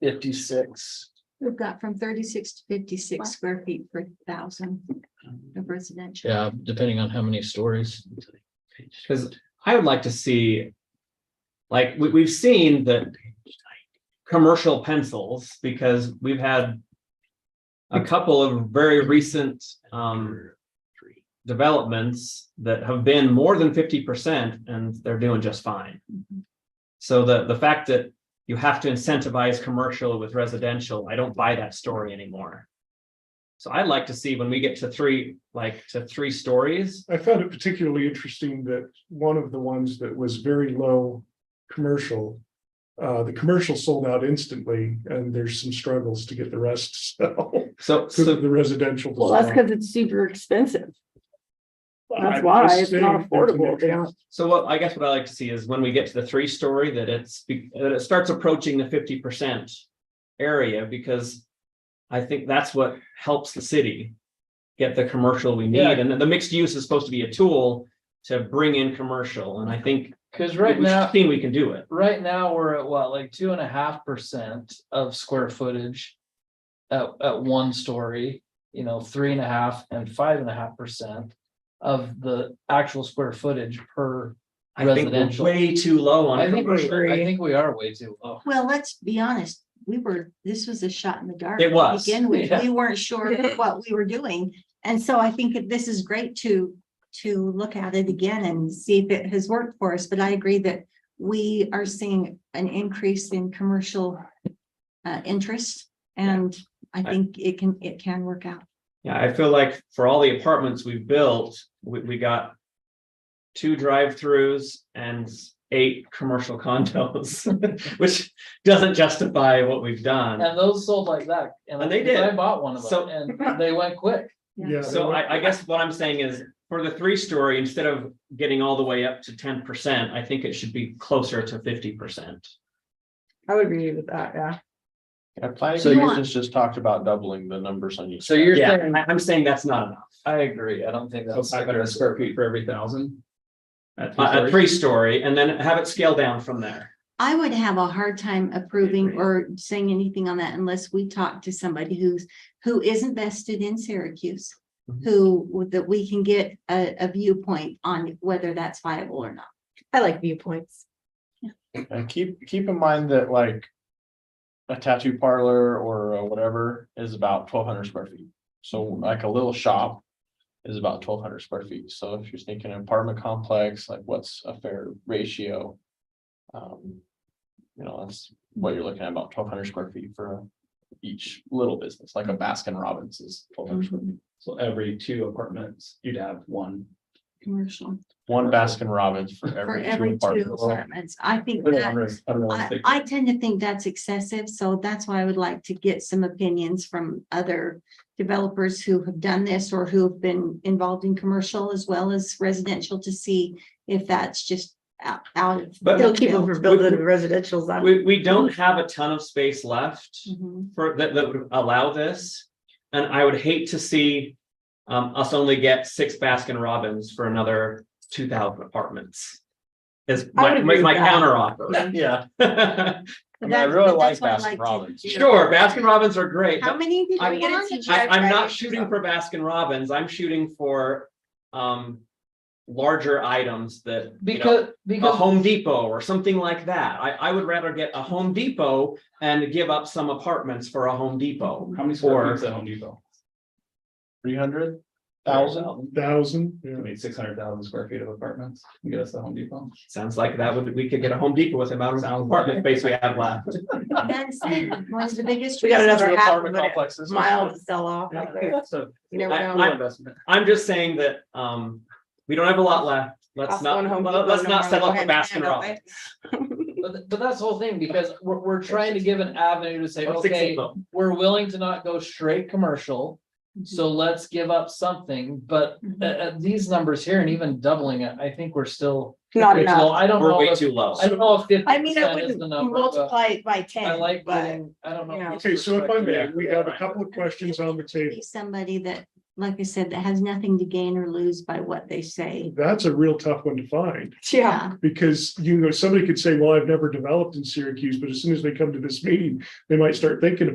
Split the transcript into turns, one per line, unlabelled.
fifty-six.
We've got from thirty-six to fifty-six square feet per thousand of residential.
Yeah, depending on how many stories.
Because I would like to see, like, we, we've seen the commercial pencils, because we've had a couple of very recent, um, developments that have been more than fifty percent, and they're doing just fine.
Mhm.
So the, the fact that you have to incentivize commercial with residential, I don't buy that story anymore. So I'd like to see when we get to three, like, to three stories,
I found it particularly interesting that one of the ones that was very low commercial. Uh, the commercial sold out instantly and there's some struggles to get the rest to sell.
so,
So
so
the residential. to
Well, that's
sell.
because it's super expensive.
I'm
That's
just
why it's not
saying there's an
affordable.
extra-
They don't-
So what I guess what I like to see is when we get to the three story that it's, that it starts approaching the fifty percent area because I think that's what helps the city get the commercial we need.
Yeah.
And then the mixed use is supposed to be a tool to bring in commercial. And I think
Cause right
we've
now,
seen we can do it.
right now, we're at what, like two and a half percent of square footage. At, at one story, you know, three and a half and five and a half percent of the actual square footage per.
I think we're
Residential.
way too low on
I think,
it.
we're- I think we are way too low.
Well, let's be honest, we were, this was a shot in the dark.
It
to
was,
Begin with,
yeah.
we weren't sure what we were doing. And so I think that this is great to, to look at it again and see if it has worked for us. But I agree that we are seeing an increase in commercial uh, interest. And I think it can, it can work out.
Yeah, I feel like for all the apartments we've built, we, we got two drive-throughs and eight commercial condos, which doesn't justify what we've done.
And those sold like that.
And they
I- 'cause I
did.
bought one of
So-
them and they went quick.
Yeah.
So I, I guess what I'm saying is for the three-story, instead of getting all the way up to ten percent, I think it should be closer to fifty percent.
I would agree with that, yeah.
So
So you
you're-
just, just talked about doubling the numbers on each.
So you're
Yeah,
saying,
I, I'm saying that's not enough.
I agree. I don't think that's.
five hundred square feet for every thousand. At three
A, a
stories?
three-story and then have it scale down from there.
I would have a hard time approving or saying anything on that unless we talk to somebody who's, who is invested in Syracuse.
Mm-hmm.
Mhm.
Who, that we can get a, a viewpoint on whether that's viable or not.
I like viewpoints.
And keep, keep in mind that like. A tattoo parlor or uh, whatever is about twelve hundred square feet. So like a little shop. Is about twelve hundred square feet. So if you're thinking apartment complex, like what's a fair ratio? Um, you know, that's what you're looking at, about twelve hundred square feet for each little business, like a Baskin Robbins is twelve hundred square feet.
So every two apartments, you'd have one.
Commercial.
One Baskin Robbins for
For
every two
every two
apartments.
apartments, I think
Put it
that,
under-
I,
unrealistic.
I tend to think that's excessive, so that's why I would like to get some opinions from other. Developers who have done this or who have been involved in commercial as well as residential to see if that's just out, out of.
But-
They'll keep
left field.
overbuilding the residential's. out.
We, we don't have a ton of space left.
Mhm.
for that that would allow this. And I would hate to see um us only get six Baskin Robbins for another two thousand apartments. Is
I would
my
agree
my- my
with that.
counter offer.
Yeah, I mean, I
That's-
really
but
like
that's what I
Baskin
to
Robbins.
do.
Sure, Baskin Robbins are great.
How
but
many did
I'm-
you want?
I I'm not shooting for Baskin Robbins. I'm shooting for um larger items that. you know,
Because,
A
because
Home Depot or something like that. I I would rather get a Home Depot and give up some apartments for a Home Depot.
How many
Or-
square feet is at Home Depot?
Three hundred thousand?
Thousand, yeah.
I mean, six hundred thousand square feet of apartments. You Get us the Home Depot.
Sounds like that would, we could get a Home Depot with the amount of apartment space we have left.
That's one of the biggest.
We got
reasons
another
for
half
having
apartment
of it.
complexes.
Mile to sell off. like there.
So
You never
I-
know.
I-
investment.
I'm just saying that, um, we don't have a lot left. Let's
Cost
not,
one Home Depot,
let's
no
not
more
settle
than
for Baskin Robbins.
But, th- but that's the whole thing, because we're, we're trying to give an avenue to say,
Let's fix it
okay,
though.
we're willing to not go straight commercial.
Mm-hmm.
So let's give up something, but
Mhm.
uh, uh, these numbers here and even doubling it, I think we're still.
Not
it's
enough.
low. I don't
We're
know,
way
if-
too low.
I don't know if fifty
I mean, I
percent is
wouldn't
the number, but
multiply it by
I
ten,
like,
but.
getting- I don't know.
you know.
people's
Okay, so if I may,
perspective.
we have a couple of questions on the table.
Be Somebody that like I said, that has nothing to gain or lose by what they say. Uh,
That's a real tough one to find
Yeah.
because you know, somebody could say, well, I've never developed in Syracuse, but as soon as they come to this meeting, they might start thinking